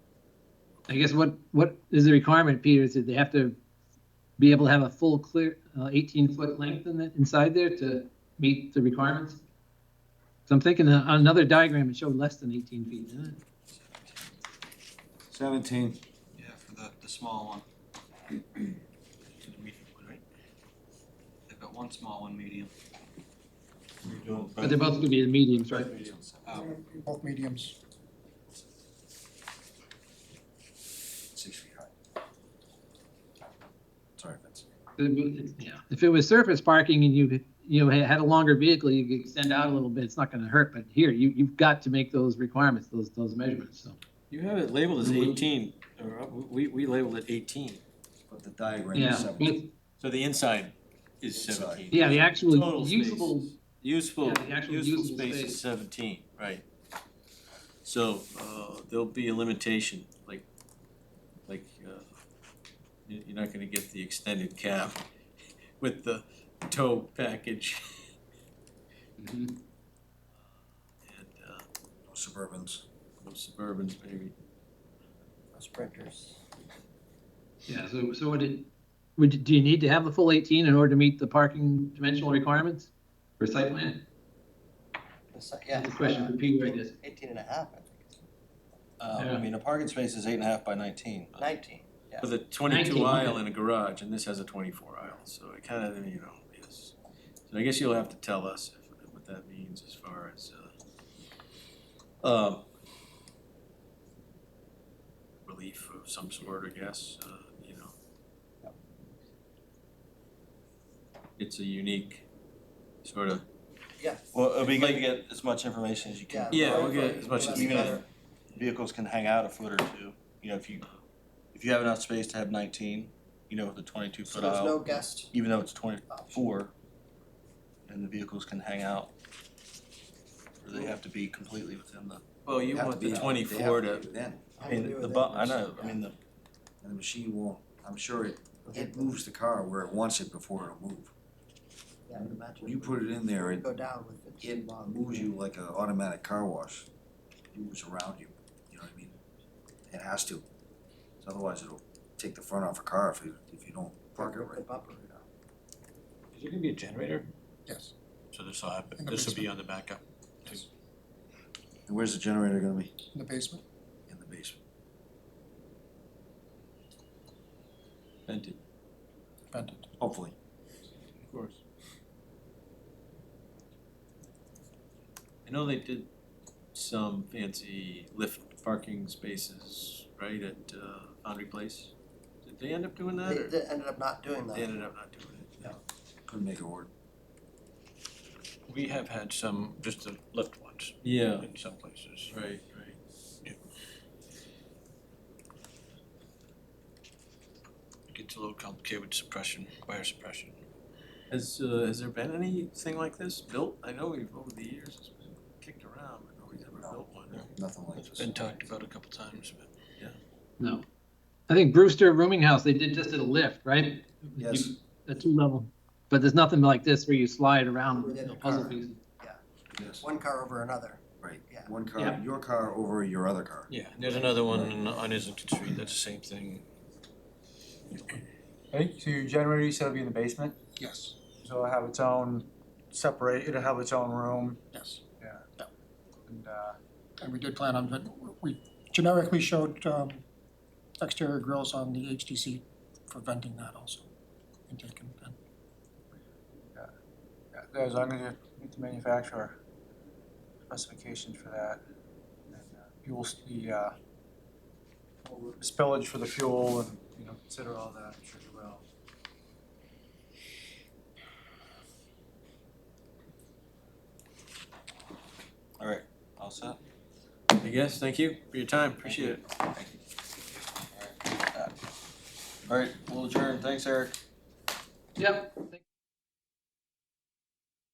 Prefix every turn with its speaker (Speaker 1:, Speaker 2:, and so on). Speaker 1: I guess what, what is the requirement, Peter? Is that they have to be able to have a full clear, uh, 18-foot length in the, inside there to meet the requirements? So I'm thinking on another diagram, it showed less than 18 feet. didn't it?
Speaker 2: Seventeen.
Speaker 3: Yeah, for the, the small one. To the medium one, right? They've got one small, one medium.
Speaker 1: But they're both gonna be the mediums, right?
Speaker 3: Oh,
Speaker 4: Um,
Speaker 5: Both mediums.
Speaker 2: Six feet high. Sorry, Vince.
Speaker 1: Yeah. If it was surface parking and you, could- you know, had a longer vehicle, you could extend out a little bit, it's not gonna hurt, but here, you, you've got to make those requirements, those, those measurements, so.
Speaker 3: You have it labeled as
Speaker 2: We-
Speaker 3: eighteen, or uh, we, we labeled it eighteen,
Speaker 2: But the diagram
Speaker 1: Yeah,
Speaker 2: is seventeen.
Speaker 1: but-
Speaker 6: So the inside is
Speaker 2: Inside.
Speaker 6: seventeen.
Speaker 1: yeah, the actual
Speaker 6: Total space.
Speaker 1: usable,
Speaker 6: Useful,
Speaker 1: Yeah, the actual
Speaker 6: useful
Speaker 1: usable
Speaker 6: space
Speaker 1: space.
Speaker 6: is seventeen, right. So, uh, there'll be a limitation, like, like, uh, you, you're not gonna get the extended cab with the tow package Mm-hmm.
Speaker 1: Mhm.
Speaker 6: and, uh,
Speaker 2: No Suburbans.
Speaker 6: no Suburbans maybe.
Speaker 2: Sprinters.
Speaker 1: yeah, so, so would it, would, you- do you need to have a full eighteen in order to meet the parking dimensional requirements for site plan?
Speaker 7: It's like- Yeah.
Speaker 1: The question for Peter, I guess.
Speaker 7: Eighteen and a half, I think,
Speaker 3: uh,
Speaker 1: Yeah.
Speaker 3: I mean, a parking space is eight and a half by nineteen.
Speaker 7: nineteen.
Speaker 6: With a twenty-two
Speaker 1: 19,
Speaker 6: aisle
Speaker 1: okay.
Speaker 6: and a garage, and this has a twenty-four aisle, so it kinda, you know, is. So I guess you'll have to tell us if- what that means as far as, uh, um, relief of some sort, I guess, uh, you know. It's a unique sort of,
Speaker 3: Well, it'll be good to get as much information as you can.
Speaker 6: Yeah, we'll get as much as
Speaker 3: we
Speaker 7: Even
Speaker 3: can.
Speaker 7: better.
Speaker 3: Vehicles can hang out a foot or two, you know, if you, if you have enough space to have nineteen, you know, with the twenty-two
Speaker 7: So
Speaker 3: foot
Speaker 7: there's no
Speaker 3: aisle,
Speaker 7: guest
Speaker 3: even though it's twenty,
Speaker 7: option.
Speaker 3: four, and the vehicles can hang out. Or they have to be completely within the,
Speaker 6: well, you want the twenty-four to,
Speaker 2: Then,
Speaker 7: I
Speaker 3: I mean,
Speaker 7: agree
Speaker 3: the
Speaker 7: with
Speaker 3: bu-
Speaker 7: that.
Speaker 3: I know, I mean, the,
Speaker 2: and the machine won't, I'm sure it, it moves the car where it wants it before it'll move.
Speaker 7: Yeah, I would imagine.
Speaker 2: When you put it in there, it,
Speaker 7: Go down with it.
Speaker 2: it moves you like an automatic car wash. It moves around you, you know what I mean? It has to. 'Cause Otherwise, it'll take the front off a car if you, if you don't park it
Speaker 7: Rip the
Speaker 2: right.
Speaker 7: bumper it up.
Speaker 4: Is there gonna be a generator?
Speaker 5: Yes.
Speaker 4: So this will happen,
Speaker 5: In the
Speaker 4: this will be on the backup.
Speaker 2: And where's the generator gonna be?
Speaker 5: In the basement.
Speaker 2: In the basement.
Speaker 6: vented,
Speaker 5: Vented.
Speaker 2: Hopefully.
Speaker 6: of course. I know they did some fancy lift parking spaces, right, at uh, Foundry Place. Did they end up doing that,
Speaker 7: They,
Speaker 6: or
Speaker 7: they ended up not doing
Speaker 6: they
Speaker 7: that.
Speaker 6: ended up not doing it?
Speaker 2: Couldn't make it work.
Speaker 4: We have had some, just the lift ones
Speaker 6: Yeah,
Speaker 4: in some places.
Speaker 6: right, right.
Speaker 4: It gets a little complicated with suppression, fire suppression.
Speaker 6: Has, uh, has there been anything like this built? I know we've, over the years, it's been kicked around, but nobody's ever built one.
Speaker 2: Nothing like
Speaker 4: It's
Speaker 2: this.
Speaker 4: been talked about a couple times, but
Speaker 1: No. I think Brewster Rooming House, they did just did a lift, right?
Speaker 2: Yes.
Speaker 1: You- A two level, but there's nothing like this where you slide around,
Speaker 7: Within
Speaker 1: you know,
Speaker 7: the
Speaker 1: puzzle
Speaker 7: car.
Speaker 1: pieces.
Speaker 2: Yes,
Speaker 7: One car over another.
Speaker 2: right.
Speaker 7: Yeah.
Speaker 2: One car,
Speaker 1: Yeah.
Speaker 2: your car over your other car.
Speaker 4: yeah, and there's another one on- on Islington Street, that's the same thing.
Speaker 8: Hey, so your generator, you said it'll be in the basement,
Speaker 5: Yes,
Speaker 8: so it'll have its own separate, it'll have its own room
Speaker 5: yes.
Speaker 8: and, uh,
Speaker 5: And we did plan on, but we generically showed um, exterior grills on the HDC for venting that also. Intake and vent.
Speaker 8: yeah, as long as you meet the manufacturer specifications for that. and uh, Fuel, s- the, uh, spillage for the fuel and, you know, consider all that, I'm sure you will.
Speaker 3: all right, all set?
Speaker 6: I guess, thank you for your time, appreciate it.
Speaker 3: All right, we'll adjourn, thanks Eric.
Speaker 1: Yep,